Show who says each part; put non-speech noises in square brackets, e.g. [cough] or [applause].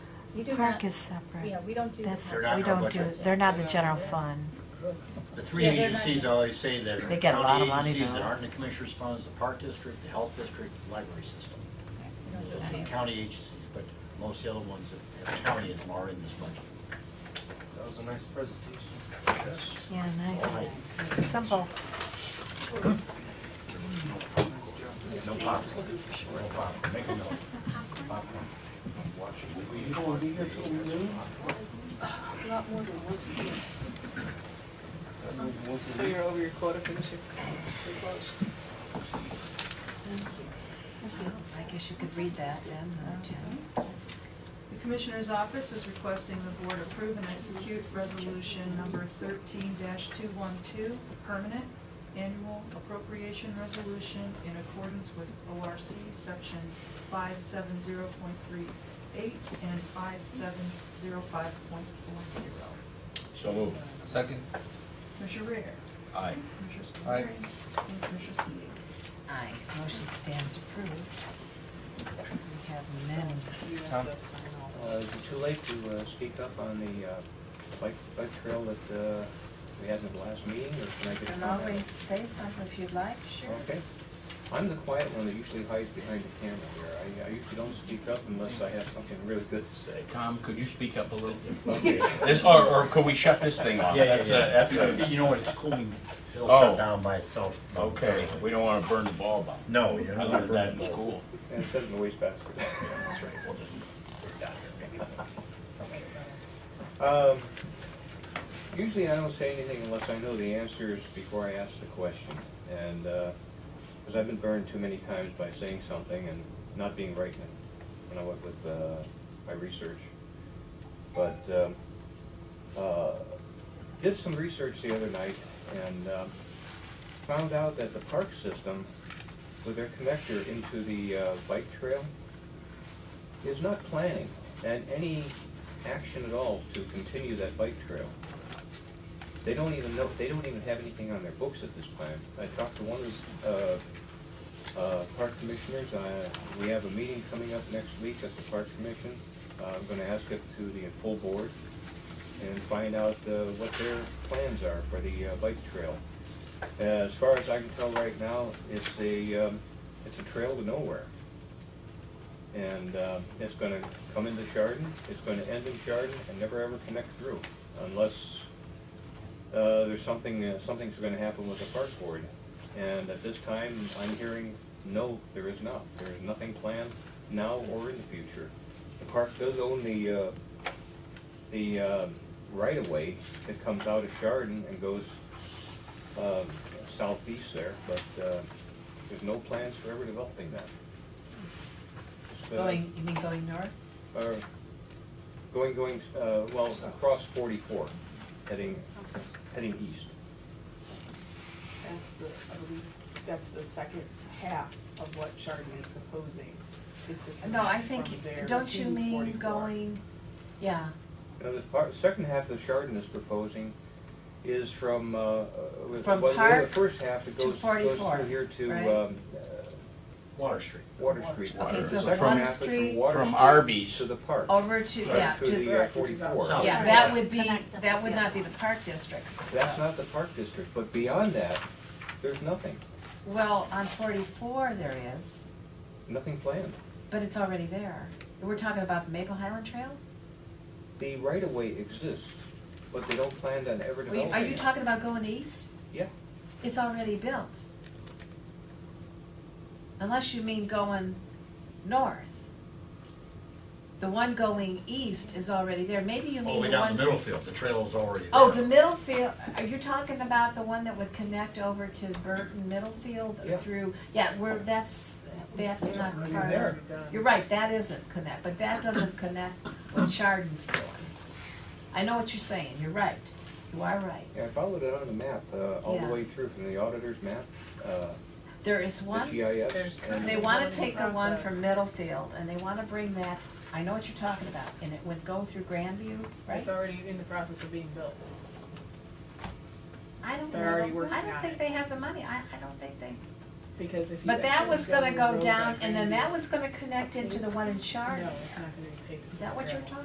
Speaker 1: We do not,
Speaker 2: Park is separate.
Speaker 1: yeah, we don't do. the
Speaker 2: That's,
Speaker 1: park.
Speaker 2: we
Speaker 1: They're not in our
Speaker 2: don't do,
Speaker 1: budget.
Speaker 2: it. they're not
Speaker 1: They're
Speaker 2: the
Speaker 1: not
Speaker 2: general
Speaker 1: there.
Speaker 2: fund.
Speaker 3: The three
Speaker 1: Yeah, they're not-
Speaker 3: agencies always say that.
Speaker 2: They get a lot of
Speaker 3: county
Speaker 2: money,
Speaker 3: agencies that
Speaker 2: though.
Speaker 3: aren't in the commissioner's funds, the park district, the health district, the library system.
Speaker 1: Okay, we don't do
Speaker 3: Those are
Speaker 1: that.
Speaker 3: county agencies, but most of the other ones that have county in them are in this budget.
Speaker 4: That was a nice presentation.
Speaker 2: Yeah,
Speaker 3: Right.
Speaker 2: nice. Simple.
Speaker 3: No popcorn. No popcorn. Make a note. Popcorn.
Speaker 4: You don't want to be here till noon? A lot more than once a
Speaker 5: So
Speaker 4: week.
Speaker 5: you're over your quota for this year? Pretty close.
Speaker 2: I guess you could read that then,
Speaker 6: The Commissioner's Office is requesting the Board approve and execute Resolution Number 13-212, Permanent Annual Appropriation Resolution in accordance with ORC Sections 570.38 and 570.5.40.
Speaker 7: So moved.
Speaker 4: Second?
Speaker 6: Commissioner Rea?
Speaker 7: Aye.
Speaker 6: Commissioner
Speaker 4: Aye.
Speaker 6: Spillier? And Commissioner Sweeting?
Speaker 2: Aye. Motion stands approved. We have many.
Speaker 5: You have
Speaker 4: Tom?
Speaker 5: to sign all
Speaker 4: Uh, is it too late to uh, speak up on the uh, bike, bike trail that uh, we had in the last meeting, or can I get
Speaker 2: can
Speaker 4: a comment?
Speaker 2: always say something if you'd like, sure.
Speaker 4: Okay. I'm the quiet one that usually hides behind the camera here. I, I usually don't speak up unless I have something really good to say.
Speaker 7: Hey, Tom, could you speak up a little? [laughs] This, or, or could we shut this thing off? That's a- that's a-
Speaker 3: You know what, it's cool, it'll
Speaker 7: Oh.
Speaker 3: shut down by itself.
Speaker 7: Okay, we don't wanna burn the ball down.
Speaker 3: No, you're
Speaker 7: I
Speaker 3: not.
Speaker 7: learned that in school.
Speaker 4: And set it in the wastebasket.
Speaker 3: That's right, we'll just put it down here, maybe.
Speaker 4: Um, Usually I don't say anything unless I know the answers before I ask the question. And, because I've been burned too many times by saying something and not being right when I went with uh, my research. But um, uh, did some research the other night and um, found out that the park system with their connector into the uh, bike trail is not planning and any action at all to continue that bike trail. They don't even know, they don't even have anything on their books at this time. I talked to one of the uh, uh, park commissioners, uh, we have a meeting coming up next week at the park commission. Uh, I'm gonna ask it to the full board and find out uh, what their plans are for the uh, bike trail. As far as I can tell right now, it's a, um, it's a trail to nowhere. And uh, it's going to come into Chardon, it's going to end in Chardon and never ever connect through unless uh, there's something, uh, something's going to happen with the park board. And at this time, I'm hearing, no, there is not. There is nothing planned now or in the future. The park does own the, uh, the uh, right-of-way that comes out of Chardon and goes uh, southeast there, but uh, there's no plans for ever developing that. It's, uh,
Speaker 2: Going, you mean going north?
Speaker 4: or going, going, uh, well, across 44, heading,
Speaker 5: Okay.
Speaker 4: heading east.
Speaker 5: That's the, I believe, that's the second half of what Chardon is proposing, is to connect
Speaker 2: No, I
Speaker 5: from
Speaker 2: think,
Speaker 5: there
Speaker 2: don't you
Speaker 5: to
Speaker 2: mean
Speaker 5: 44.
Speaker 2: going, yeah,
Speaker 4: You know, this part, second half that Chardon is proposing is from, uh, uh, with-
Speaker 2: From
Speaker 4: well,
Speaker 2: Park
Speaker 4: the first half, it
Speaker 2: to
Speaker 4: goes, goes
Speaker 2: 44,
Speaker 4: through here to
Speaker 2: right?
Speaker 4: um, uh,
Speaker 3: Water Street.
Speaker 4: Water Street.
Speaker 2: Okay,
Speaker 4: The
Speaker 2: so
Speaker 4: second
Speaker 2: from
Speaker 4: half is
Speaker 2: Street-
Speaker 4: Water
Speaker 7: From
Speaker 4: Street
Speaker 7: Arby's.
Speaker 4: To the park.
Speaker 2: over to,
Speaker 4: right,
Speaker 2: yeah,
Speaker 4: To
Speaker 2: to,
Speaker 4: the uh,
Speaker 5: Right, which is
Speaker 4: 44.
Speaker 5: outside.
Speaker 2: Oh, yeah,
Speaker 3: South.
Speaker 2: that would be,
Speaker 1: Connect up,
Speaker 2: that would
Speaker 1: yeah.
Speaker 2: not be the park districts.
Speaker 4: That's not the park district, but beyond that, there's nothing,
Speaker 2: Well, on forty-four there is,
Speaker 4: nothing planned.
Speaker 2: but it's already there. We're talking about the Maple Highland Trail?
Speaker 4: The right-of-way exists, but they don't plan on ever
Speaker 2: Are you-
Speaker 4: developing it.
Speaker 2: Are you talking about going east?
Speaker 4: Yeah.
Speaker 2: It's already built. Unless you mean going north. The one going east is already there. Maybe you
Speaker 3: All the
Speaker 2: mean
Speaker 3: way
Speaker 2: the
Speaker 3: down the
Speaker 2: one.
Speaker 3: middle field, the trail is already there.
Speaker 2: Oh, the middle field, are you talking about the one that would connect over to Burton Middlefield
Speaker 4: Yeah.
Speaker 2: through? Yeah, where, that's, that's not
Speaker 4: Already
Speaker 2: part of.
Speaker 4: there.
Speaker 2: You're right, that isn't connect, but that doesn't connect what Chardon's doing. I know what you're saying, you're right. You are right.
Speaker 4: Yeah, I followed it on the map, uh, all the
Speaker 2: Yeah.
Speaker 4: way through from the auditor's map, uh,
Speaker 2: There is
Speaker 4: the
Speaker 2: one.
Speaker 4: GIS.
Speaker 5: There's
Speaker 4: and-
Speaker 2: They wanna take the one
Speaker 5: Process.
Speaker 2: from Middlefield, and they wanna bring that, I know what you're talking about, and it would go through Grandview, right?
Speaker 5: It's already in the process of being built.
Speaker 2: I don't
Speaker 5: they're already
Speaker 2: know,
Speaker 5: working
Speaker 2: I don't
Speaker 5: on
Speaker 2: think
Speaker 5: it.
Speaker 2: they have the money, I, I don't think they.
Speaker 5: Because if you.
Speaker 2: But that
Speaker 5: actually
Speaker 2: was gonna
Speaker 5: the
Speaker 2: go
Speaker 5: road
Speaker 2: down,
Speaker 5: back
Speaker 2: and then
Speaker 5: in,
Speaker 2: that was gonna connect into the one in
Speaker 5: No, it's
Speaker 2: Chardon.
Speaker 5: not gonna take.
Speaker 2: Is that what you're
Speaker 5: gravel.
Speaker 2: talking